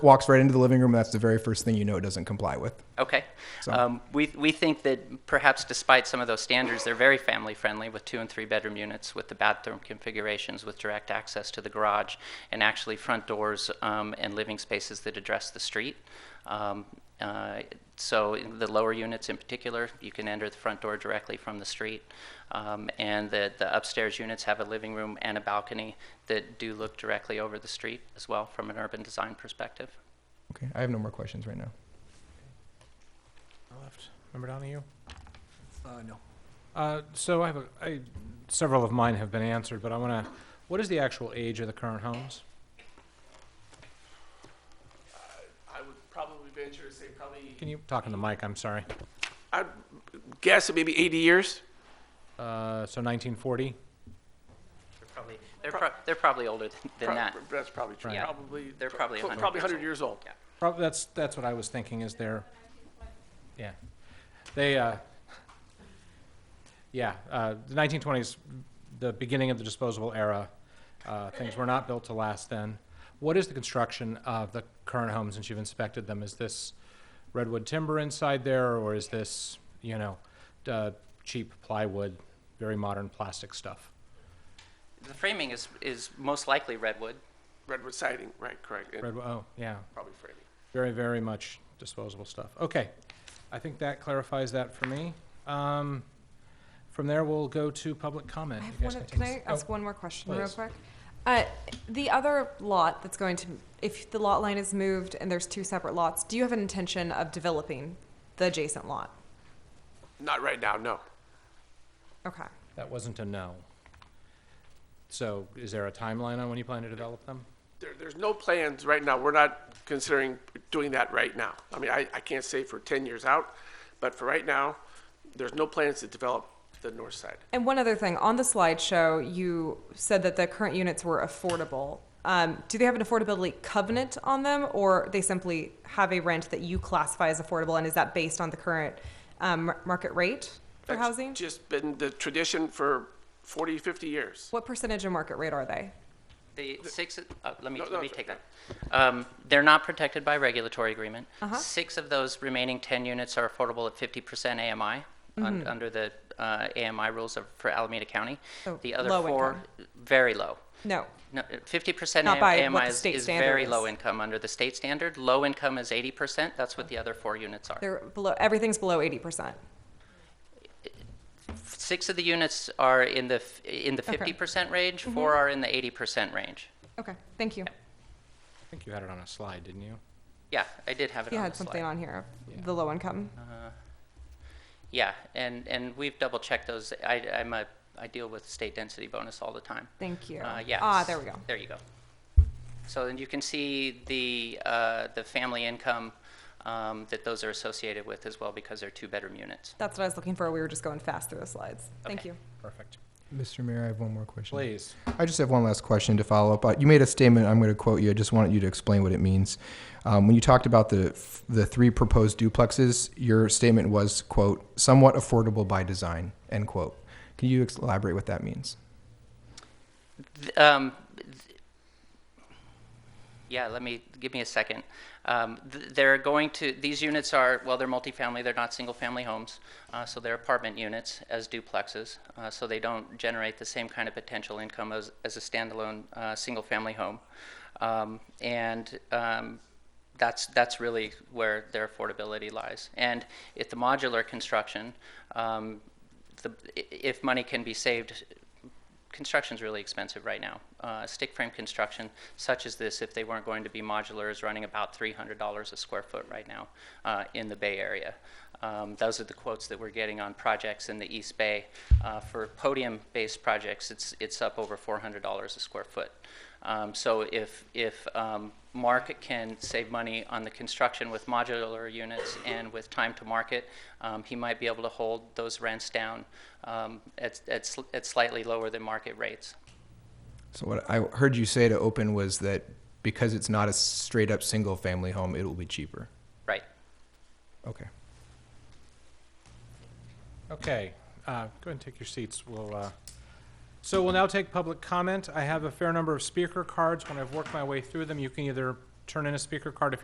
walks right into the living room. And that's the very first thing you know it doesn't comply with. Okay. So- Um, we, we think that perhaps despite some of those standards, they're very family friendly with two and three bedroom units, with the bathroom configurations, with direct access to the garage, and actually front doors um, and living spaces that address the street. Um, uh, so in the lower units in particular, you can enter the front door directly from the street. Um, and the, the upstairs units have a living room and a balcony that do look directly over the street as well from an urban design perspective. Okay. I have no more questions right now. left. Member Donahue? Uh, no. Uh, so I have a, I, several of mine have been answered, but I want to, what is the actual age of the current homes? I would probably venture to say probably, Can you talk in the mic? I'm sorry. I'd guess it maybe 80 years. Uh, so 1940? They're probably, they're, pro- they're probably older than, than Prob- that. That's probably true. Right. Probably. They're probably pro- 100 Probably years 100 years old. Yeah. Prob- that's that's what I was thinking. Is there? Yeah, they. Uh, yeah, uh, the 1920s, the beginning of the disposable era. Uh, things were not built to last then. What is the construction of the current homes since you've inspected them? Is this redwood timber inside there, or is this you know uh, cheap plywood, very modern plastic stuff? The framing is, is most likely redwood. Redwood siding, right, correct. and Redwood. Oh, yeah. Probably framing. Very, very much disposable stuff. Okay, I think that clarifies that for me. Um, From there, we'll go to public comment. I You have guys one, can can take I this- ask oh, one more question real please. quick? Uh, the other lot that's going to, if the lot line is moved and there's two separate lots, do you have an intention of developing the adjacent lot? Not right now, no. Okay. That wasn't a no. So is there a timeline on when you plan to develop them? There, there's no plans right now. We're not considering doing that right now. I mean, I, I can't say for 10 years out, but for right now, there's no plans to develop the north side. And one other thing, on the slideshow, you said that the current units were affordable. Um, do they have an affordability covenant on them, or they simply have a rent that you classify as affordable, and is that based on the current um, mar- market rate for That's housing? Just been the tradition for 40, 50 years. What percentage of market rate are they? The six, uh, let me, No, no, let me it's take okay. that. Um, They're not protected by regulatory agreement. Uh-huh. Six of those remaining 10 units are affordable at 50% AMI, Mm-hmm. un- under the uh, AMI rules of- for Alameda County. So The other Oh, low four, very low. No. No, 50% Not by what AMI the is state is standard very is. low income under the state standard. Low income is 80%, that's what the other four units are. They're below, everything's below 80%. Six of the units are in the, f- in the Okay. Mm-hmm. 50% range, four are in the 80% range. Okay, thank you. I think you had it on a slide, didn't you? Yeah, I did have it You on the had slide. something on here, Yeah. the low income. Yeah, and, and we've double checked those. I, I'm a, I deal with state density bonus all the time. Thank you. Uh, yeah. Ah, there we go. There you go. So then you can see the, uh, the family income, um, that those are associated with as well because they're two-bedroom units. That's what I was looking for. We were just going fast through the slides. Thank Okay. you. Perfect. Mr. Mayor, I have one more question. Please. I just have one last question to follow up. Uh, You made a statement. I'm going to quote you. I just wanted you to explain what it means. Um, when you talked about the the three proposed duplexes, your statement was quote somewhat affordable by design end quote. Can you ex- elaborate what that means? Th- um, th- yeah, let me give me a second. Um, th- they're going to these units are well, they're multifamily. They're not single-family homes, uh, so they're apartment units as duplexes. Uh, so they don't generate the same kind of potential income as as a standalone uh, single-family home, um, and um, that's that's really where their affordability lies. And if the modular construction, um, the, i- if money can be saved construction's really expensive right now. Uh, stick frame construction, such as this, if they weren't going to be modular, is running about $300 a square foot right now uh, in the Bay Area. Um, those are the quotes that we're getting on projects in the East Bay. Uh, for podium-based projects, it's it's up over $400 a square foot. Um, so if if um, Mark can save money on the construction with modular units and with time to market, um, he might be able to hold those rents down um, at, at, sl- at slightly lower than market rates. So what I heard you say to open was that because it's not a straight up single family home, it will be cheaper. Right. Okay. Okay, uh, go ahead and take your seats. We'll, uh, so we'll now take public comment. I have a fair number of speaker cards. When I've worked my way through them, you can either turn in a speaker card if